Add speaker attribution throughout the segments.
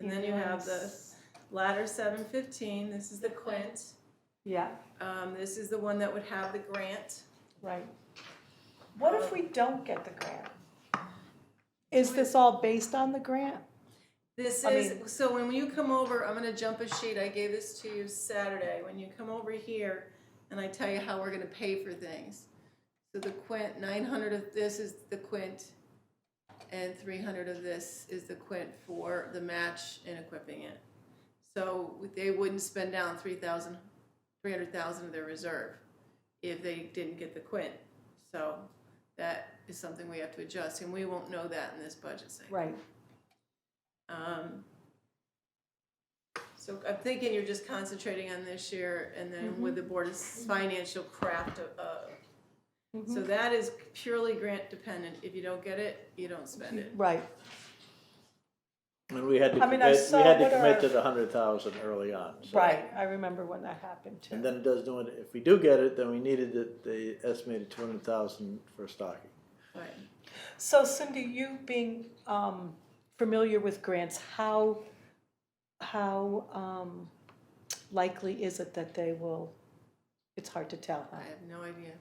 Speaker 1: then you have the ladder seven fifteen, this is the Quint.
Speaker 2: Yeah,
Speaker 1: Um, this is the one that would have the grant.
Speaker 2: right. What if we don't get the grant? Is this all based on the grant?
Speaker 1: This
Speaker 2: I
Speaker 1: is, so when you come over, I'm gonna jump a sheet, I gave this to you Saturday, when you come over here and I tell you how we're gonna pay for things. So the Quint, nine hundred of this is the Quint, and three hundred of this is the Quint for the match and equipping it. So they wouldn't spend down three thousand, three hundred thousand of their reserve if they didn't get the Quint. So that is something we have to adjust, and we won't know that in this budget cycle.
Speaker 2: Right.
Speaker 1: Um, So I'm thinking you're just concentrating on this year and then with the board's financial craft of, of- so that is purely grant dependent. If you don't get it, you don't spend it.
Speaker 2: Right,
Speaker 3: And we had to
Speaker 2: I mean, I
Speaker 3: commit, we
Speaker 2: saw
Speaker 3: had to
Speaker 2: what
Speaker 3: commit
Speaker 2: our-
Speaker 3: to the hundred thousand early on. so-
Speaker 2: right, I remember when that happened too.
Speaker 3: And then it does do it, if we do get it, then we needed the, the estimated two hundred thousand for stocking.
Speaker 1: Right.
Speaker 2: So Cindy, you being um familiar with grants, how how um likely is it that they will, it's hard to tell, huh?
Speaker 1: I have no idea.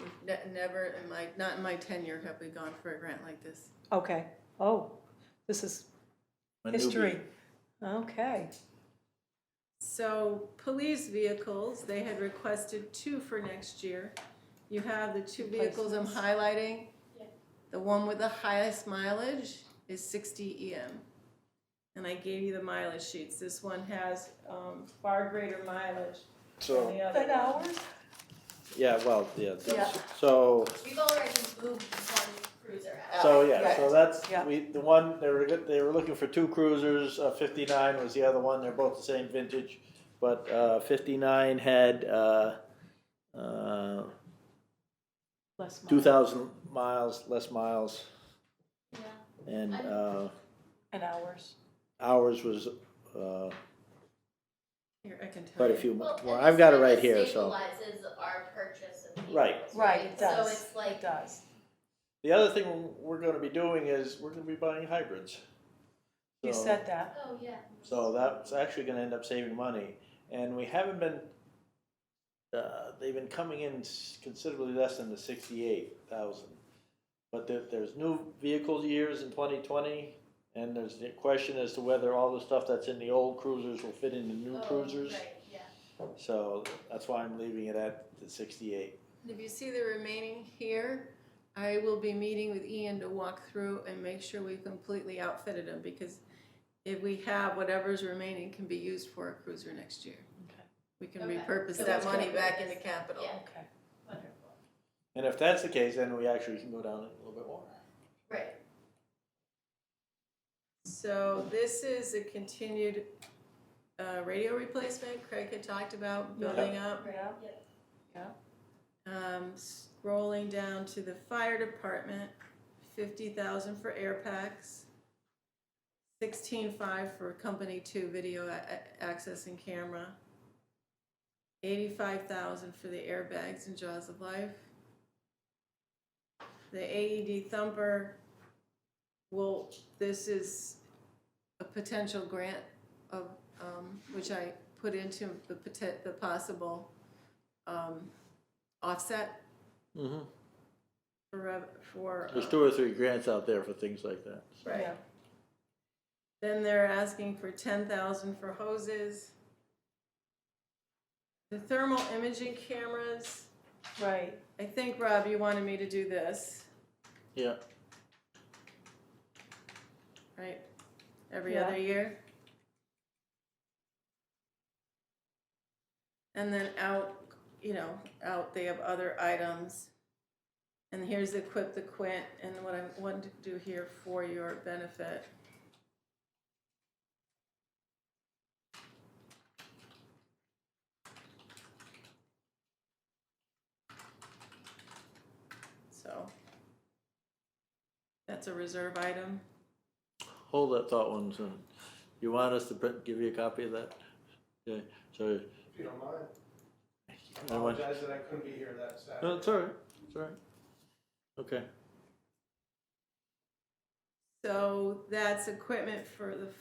Speaker 1: We've ne- Never in my, not in my tenure have we gone for a grant like this.
Speaker 2: Okay, oh, this is
Speaker 3: A newbie.
Speaker 2: history. Okay,
Speaker 1: So police vehicles, they had requested two for next year. You have the two vehicles I'm highlighting. The one with the highest mileage is sixty EM. And I gave you the mileage sheets. This one has um far greater mileage than
Speaker 3: So,
Speaker 1: the
Speaker 2: but
Speaker 1: other.
Speaker 2: hours?
Speaker 3: yeah, well, yeah,
Speaker 2: Yeah.
Speaker 3: so,
Speaker 4: We've already moved one cruiser out.
Speaker 3: so, yeah, so that's,
Speaker 2: Uh, Yeah.
Speaker 3: we, the one, they were, good- they were looking for two cruisers, uh, fifty-nine was the other one, they're both the same vintage. But, uh, fifty-nine had, uh, uh,
Speaker 2: Less miles.
Speaker 3: two thousand miles, less miles,
Speaker 4: Yeah.
Speaker 3: and,
Speaker 4: I'm-
Speaker 3: uh,
Speaker 2: And hours.
Speaker 3: ours was, uh,
Speaker 1: Here, I can tell
Speaker 3: quite a
Speaker 1: you.
Speaker 3: few
Speaker 4: Well,
Speaker 3: more.
Speaker 4: and
Speaker 3: Well,
Speaker 4: this
Speaker 3: I've got it
Speaker 4: kinda
Speaker 3: right here, so.
Speaker 4: Stabilizes our purchase of vehicles.
Speaker 3: Right.
Speaker 2: Right, it does.
Speaker 4: So it's like,
Speaker 2: does.
Speaker 3: The other thing we're gonna be doing is, we're gonna be buying hybrids.
Speaker 2: You
Speaker 3: So-
Speaker 2: said that.
Speaker 4: oh, yeah.
Speaker 3: So that's actually gonna end up saving money, and we haven't been, uh, they've been coming in s- considerably less than the sixty-eight thousand. But there, there's new vehicle years in twenty twenty, and there's the question as to whether all the stuff that's in the old cruisers will fit in the new
Speaker 4: Oh,
Speaker 3: cruisers.
Speaker 4: Right, yeah.
Speaker 3: So that's why I'm leaving it at the sixty-eight.
Speaker 1: If you see the remaining here, I will be meeting with Ian to walk through and make sure we've completely outfitted them because if we have whatever's remaining can be used for a cruiser next year.
Speaker 2: Okay.
Speaker 1: We can
Speaker 4: Okay.
Speaker 1: repurpose
Speaker 4: So
Speaker 1: that
Speaker 4: it's
Speaker 1: money
Speaker 4: good.
Speaker 1: back into capital.
Speaker 4: Yeah.
Speaker 2: Okay.
Speaker 4: Wonderful.
Speaker 3: And if that's the case, then we actually can go down a little bit more.
Speaker 4: Right.
Speaker 1: So this is a continued uh, radio replacement Craig had talked about building up.
Speaker 2: Yeah.
Speaker 4: Yep.
Speaker 1: Um, Scrolling down to the fire department, fifty thousand for air packs, sixteen-five for company two video a- a- access and camera, eighty-five thousand for the airbags and jaws of life. The AED thumper, well, this is a potential grant of, um, which I put into the poten- the possible, um, offset
Speaker 3: Mm-hmm.
Speaker 1: for, rev- for.
Speaker 3: There's
Speaker 1: uh,
Speaker 3: two or three grants out there for things like that.
Speaker 1: Right.
Speaker 2: Yeah.
Speaker 1: Then they're asking for ten thousand for hoses. The thermal imaging cameras,
Speaker 2: Right.
Speaker 1: I think, Rob, you wanted me to do this,
Speaker 3: Yeah.
Speaker 1: right? Every
Speaker 2: Yeah.
Speaker 1: other year. And then out, you know, out, they have other items. And here's the quip, the quint, and what I wanted to do here for your benefit. So. That's a reserve item.
Speaker 3: Hold that thought one second. You want us to print, give you a copy of that? Okay, so,
Speaker 5: If you don't mind, I
Speaker 3: I want-
Speaker 5: apologize that I couldn't be here that Saturday.
Speaker 3: no, it's all right, it's all right. Okay.
Speaker 1: So that's equipment for the